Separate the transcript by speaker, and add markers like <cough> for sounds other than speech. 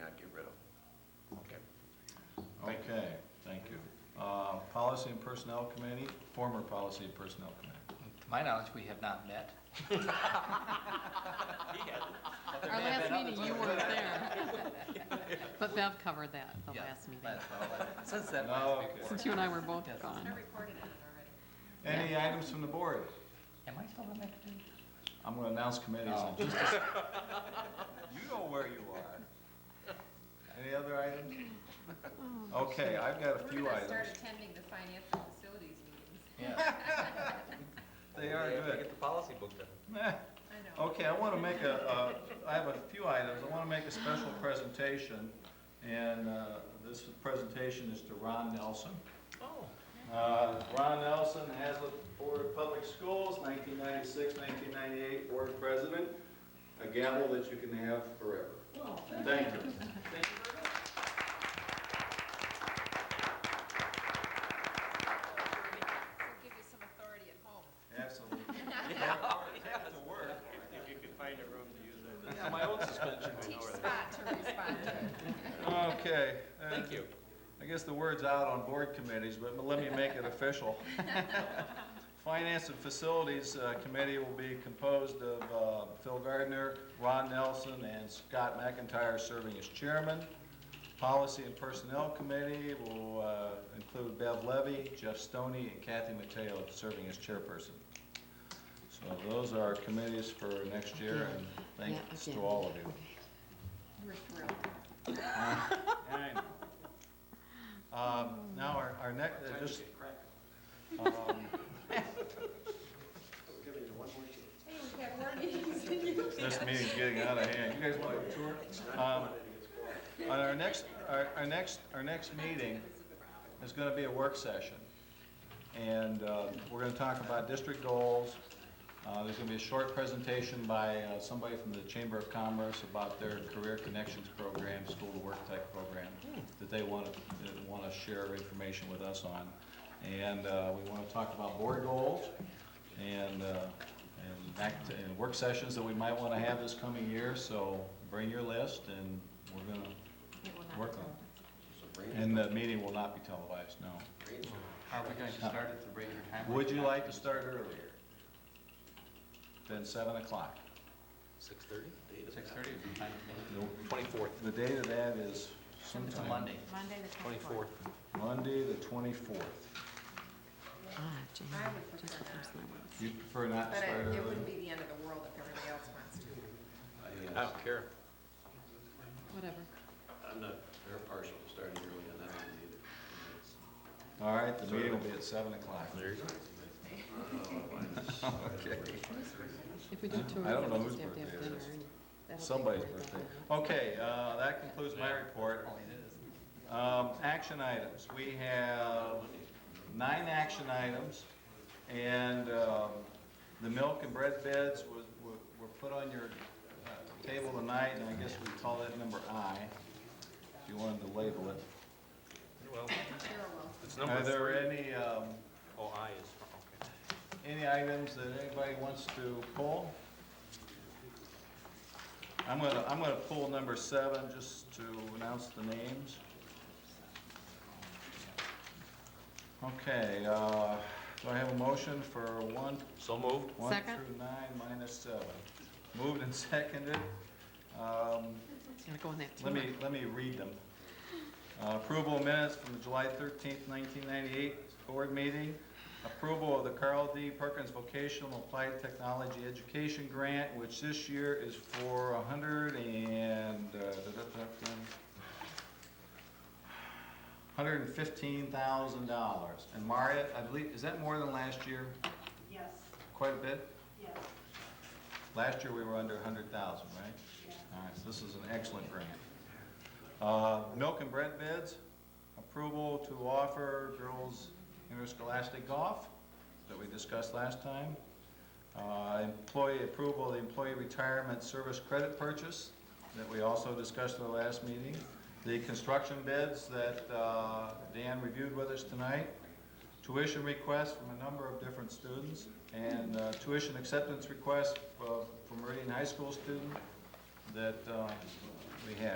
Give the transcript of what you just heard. Speaker 1: not get rid of.
Speaker 2: Okay.
Speaker 3: Oh.
Speaker 1: Thank you.
Speaker 2: Okay, thank you. Uh, Policy and Personnel Committee, former Policy and Personnel Committee.
Speaker 4: To my knowledge, we have not met.
Speaker 5: Our last meeting, you weren't there.
Speaker 2: <laughs>
Speaker 5: But Bev covered that, the
Speaker 4: Yeah,
Speaker 5: Oh, last meeting,
Speaker 4: last- well, Since that <laughs>
Speaker 2: No,
Speaker 4: last
Speaker 2: okay.
Speaker 4: report.
Speaker 5: since you and I were both
Speaker 4: Yes.
Speaker 5: gone.
Speaker 2: Any items from the board?
Speaker 4: Am I still on that committee?
Speaker 2: I'm going to announce committees
Speaker 3: Oh.
Speaker 4: No.
Speaker 2: in just
Speaker 3: <laughs>
Speaker 2: a second. You know where you are. Any other items?
Speaker 3: <laughs>
Speaker 2: Okay, I've got a
Speaker 3: We're
Speaker 2: few
Speaker 3: gonna start
Speaker 2: items.
Speaker 3: attending the financial facilities meetings.
Speaker 4: Yeah.
Speaker 2: They are good.
Speaker 6: Get the policy book done.
Speaker 2: <laughs> Meh.
Speaker 3: I know.
Speaker 2: Okay, I want to make a, a- I have a few items. I want to make a special presentation, and uh, this presentation is to Ron Nelson. Oh. Ron Nelson, Hazlet Board of Public Schools, 1996, 1998, Board President, a gavel that you can have forever. Oh, Thank you.
Speaker 3: We'll give you some authority at <laughs> home.
Speaker 2: Absolutely.
Speaker 1: If you could find a room to use it.
Speaker 6: Yeah, my own suspension.
Speaker 3: Teach Spot to respond to.
Speaker 2: Okay. uh,
Speaker 6: Thank you.
Speaker 2: I guess the word's out on board committees, but let me make it official. Finance and Facilities uh, Committee will be composed of uh, Phil Gardner, Ron Nelson, and Scott McIntyre serving as chairman. Policy and Personnel Committee will uh, include Bev Levy, Jeff Stoney, and Kathy Mateo serving as chairperson. So those are our committees for next year, and thanks to all of you.
Speaker 3: We're thrilled. <laughs>
Speaker 2: Um, Now, our, our next, uh, just. Um,
Speaker 3: Hey, we've got more meetings than you.
Speaker 2: This meeting's getting out of hand. You guys want a tour? Um, On our next, our, our next, our next meeting is gonna be a work session. And, uh, we're gonna talk about district goals. Uh, there's gonna be a short presentation by, uh, somebody from the Chamber of Commerce about their career connections program, school to work type program, that they wanna, that wanna share information with us on. And, uh, we wanna talk about board goals and, uh, and act, and work sessions that we might want to have this coming year, so bring your list and we're gonna work on it. And the meeting will not be televised, no.
Speaker 4: Are we going to start at the regular time?
Speaker 2: Would you like to start earlier? Than seven o'clock?
Speaker 6: Six thirty?
Speaker 4: Six thirty would be fine with me.
Speaker 6: Twenty-fourth.
Speaker 2: The date of that is
Speaker 4: It's a
Speaker 2: sometime,
Speaker 4: Monday.
Speaker 5: Monday,
Speaker 6: Twenty-fourth.
Speaker 2: Monday, the twenty-fourth.
Speaker 5: Ah,
Speaker 3: I would prefer not,
Speaker 2: You prefer not to
Speaker 3: but
Speaker 2: start
Speaker 3: it-
Speaker 2: early?
Speaker 3: it wouldn't be the end of the world if everybody else wants to.
Speaker 6: I don't care.
Speaker 5: Whatever.
Speaker 7: I'm not, very partial to starting early
Speaker 1: <laughs>
Speaker 7: on that one either. It's-
Speaker 2: All right, the meeting will be at seven o'clock.
Speaker 5: If we do two,
Speaker 2: I don't know
Speaker 5: we
Speaker 2: whose
Speaker 5: just have to have
Speaker 2: birthday it
Speaker 5: dinner.
Speaker 2: is.
Speaker 5: and that'll take
Speaker 2: Somebody's
Speaker 5: forty-five
Speaker 2: birthday.
Speaker 5: minutes.
Speaker 2: Okay, uh, that concludes my report.
Speaker 4: Oh, it is.
Speaker 2: Um, action items, we have nine action items, and, um, the milk and bread beds were, were, were put on your uh, table tonight, and I guess we call that number I, if you wanted to label it.
Speaker 6: Well,
Speaker 3: Sure will.
Speaker 6: it's
Speaker 2: Are
Speaker 6: number
Speaker 2: there
Speaker 6: three.
Speaker 2: any, um,
Speaker 6: Oh, I is, okay.
Speaker 2: any items that anybody wants to pull? I'm gonna, I'm gonna pull number seven, just to announce the names. Okay, uh, do I have a motion for one,
Speaker 6: So moved.
Speaker 2: one
Speaker 5: Second.
Speaker 2: through nine minus seven? Moved and seconded. Um,
Speaker 5: Gotta go in that
Speaker 2: let me,
Speaker 5: team.
Speaker 2: let me read them. Uh, Approval of minutes from the July thirteenth, nineteen ninety-eight board meeting. Approval of the Carl D. Perkins Vocational Applied Technology Education Grant, which this year is for a hundred and, uh, hundred and fifteen thousand dollars. And Maria, I believe, is that more than last year?
Speaker 8: Yes,
Speaker 2: Quite a bit?
Speaker 8: yes,
Speaker 2: Last year, we were under 100,000, right?
Speaker 8: yes.
Speaker 2: All right, so this is an excellent grant. Uh, Milk and bread bids, approval to offer girls interscholastic golf that we discussed last time. Uh, Employee approval, of the employee retirement service credit purchase that we also discussed at the last meeting. The construction bids that uh, Dan reviewed with us tonight. Tuition requests from a number of different students. And uh, tuition acceptance requests uh, from Meridian High School student that uh, we have.